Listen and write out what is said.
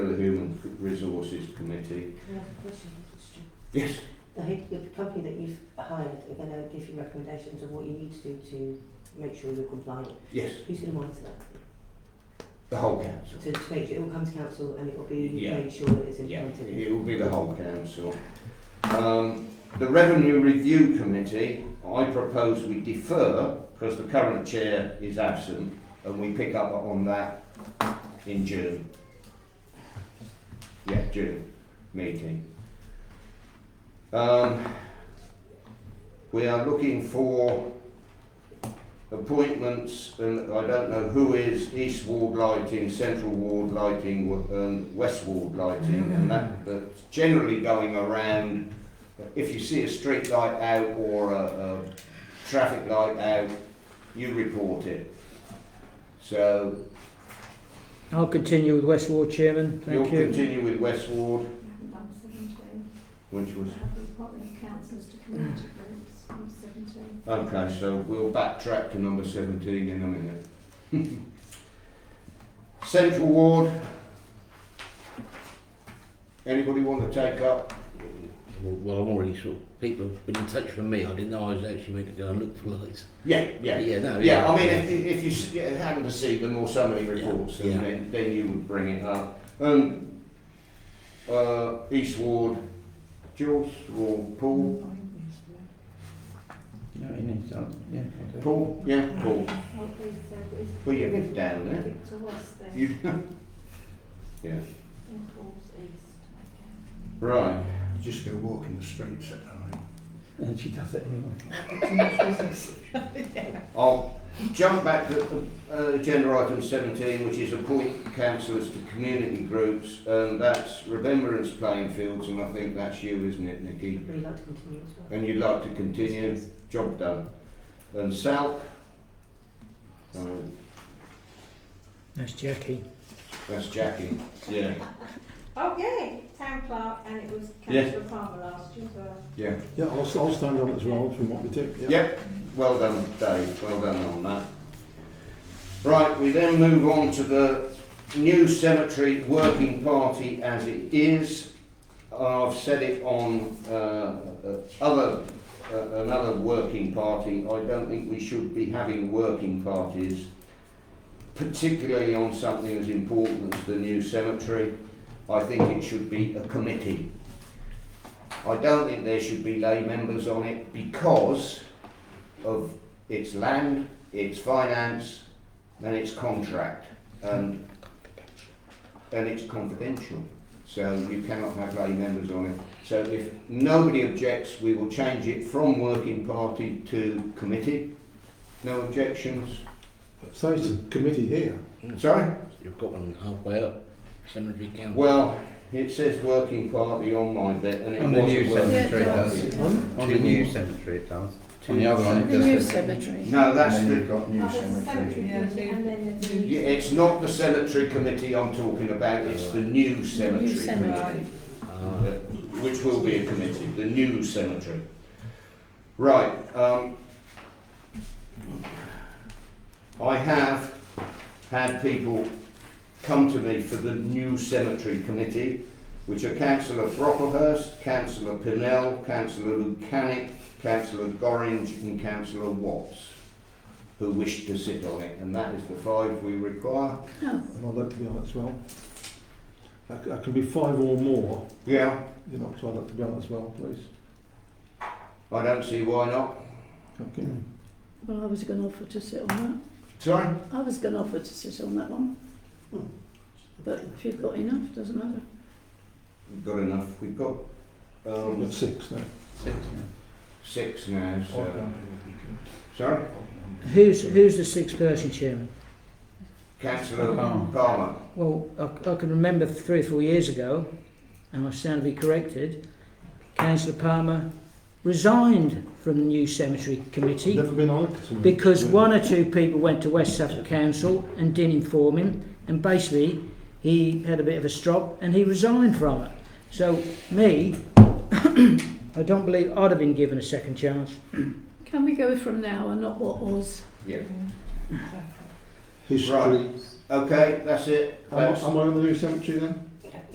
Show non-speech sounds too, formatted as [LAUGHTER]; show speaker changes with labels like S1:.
S1: Resources Committee.
S2: Can I ask a question? Stu?
S1: Yes,
S2: The, head- the company that you've hired are going to give you recommendations of what you need to do to make sure you're compliant.
S1: yes,
S2: Who's going to monitor that?
S1: the whole council.
S2: To, to make sure it will come to council and it will be
S1: Yeah.
S2: made sure that it's
S1: Yeah,
S2: implemented.
S1: it will be the whole council. Um, the Revenue Review Committee, I propose we defer, because the current chair is absent, and we pick up on that in June. Yeah, June meeting. Um, we are looking for appointments, and I don't know who is East Ward Lighting, Central Ward Lighting, and West Ward Lighting,
S3: Mm-hmm.
S1: and that, that's generally going around. If you see a street light out or a, a traffic light out, you report it. So
S3: I'll continue with West Ward Chairman,
S1: you'll
S3: thank you.
S1: continue with West Ward,
S4: Number seventeen,
S1: which was,
S4: have the appointment of councillors to community groups, number seventeen.
S1: okay, so we'll backtrack to number seventeen in a minute. [LAUGHS] Central Ward. Anybody want to take up
S5: Well, I've already sort of, people have been in touch with me. I didn't know I was actually meant to go and look for lights.
S1: Yeah, yeah.
S5: yeah, no,
S1: Yeah, I mean, if, if you s- yeah, hadn't received them or somebody reports
S5: Yeah.
S1: them, then, then you would bring it up. Um, uh, East Ward, Jules or Paul? Paul, yeah, Paul.
S4: What is, uh, is
S1: Well, you live down there.
S4: Victor West there,
S1: You, yeah,
S4: and Paul's east.
S1: right.
S6: Just go walk in the streets at night.
S3: And she does it anyway.
S1: I'll jump back to uh, agenda item 17, which is appoint councillors to community groups, and that's Remembrance Playing Fields, and I think that's you, isn't it, Nikki?
S2: Would you like to continue as well?
S1: and you'd like to continue, job done. And Sal, um,
S3: That's Jackie.
S1: that's Jackie. Yeah,
S4: Oh, yay, town clerk, and it was
S1: Yes.
S4: councillor Palmer last year as well.
S1: yeah.
S6: Yeah, I'll, I'll stand on it as well from what we did. yeah.
S1: Yep, well done, Dave. Well done on that. Right, we then move on to the new cemetery working party as it is. I've said it on uh, uh, other uh, another working party. I don't think we should be having working parties, particularly on something as important as the new cemetery. I think it should be a committee. I don't think there should be lay members on it because of its land, its finance, and its contract, and and it's confidential. So you cannot have lay members on it. So if nobody objects, we will change it from working party to committee. No objections.
S6: So it's a committee here.
S1: Sorry.
S5: You've got one halfway up. Cemetery Council.
S1: Well, it says working party on my bit, and it
S7: On the
S1: wasn't
S7: new
S1: working.
S7: cemetery it does. On the new cemetery it does. On the other one it
S8: The new
S7: does.
S8: cemetery.
S1: No, that's
S7: And
S1: the
S7: then you've got
S4: Oh,
S7: new
S4: there's the
S7: cemetery.
S4: committee, and then there's the.
S1: Yeah, it's not the cemetery committee I'm talking about, it's the new cemetery
S8: New
S1: committee,
S8: cemetery.
S1: uh,
S5: Uh,
S1: which will be a committee, the new cemetery. Right, um, I have had people come to me for the new cemetery committee, which are councillor Brocklehurst, councillor Pinnell, councillor Lucanic, councillor Gorringe and councillor Watts, who wish to sit on it, and that is the five we require.
S8: Oh,
S6: And I'd like to be on it as well. I, c- I can be five or more,
S1: Yeah,
S6: you know, so I'd like to be on it as well, please.
S1: I don't see why not.
S6: Okay.
S8: well, I was going to offer to sit on
S1: Sorry?
S8: that. I was going to offer to sit on that one. But if you've got enough, doesn't matter.
S1: We've got enough. We've got
S6: We've
S1: um,
S6: got six now.
S5: Uh,
S1: six now, so. Sorry?
S3: Who's, who's the sixth person chairman?
S1: Councillor
S7: Palmer.
S1: Palmer.
S3: Well, I, I can remember three or four years ago, and I stand to be corrected, Councillor Palmer resigned from the new cemetery committee
S6: Never been on it. so-
S3: because one or two people went to West Suffolk Council and didn't inform him, and basically he had a bit of a strop and he resigned from it. So me, [COUGHS] I don't believe I'd have been given a second chance.
S8: Can we go from now and not what was?
S1: Yeah.
S6: History.
S1: Right. Okay, that's it.
S6: Am I,
S1: That's,
S6: am I on the new cemetery then?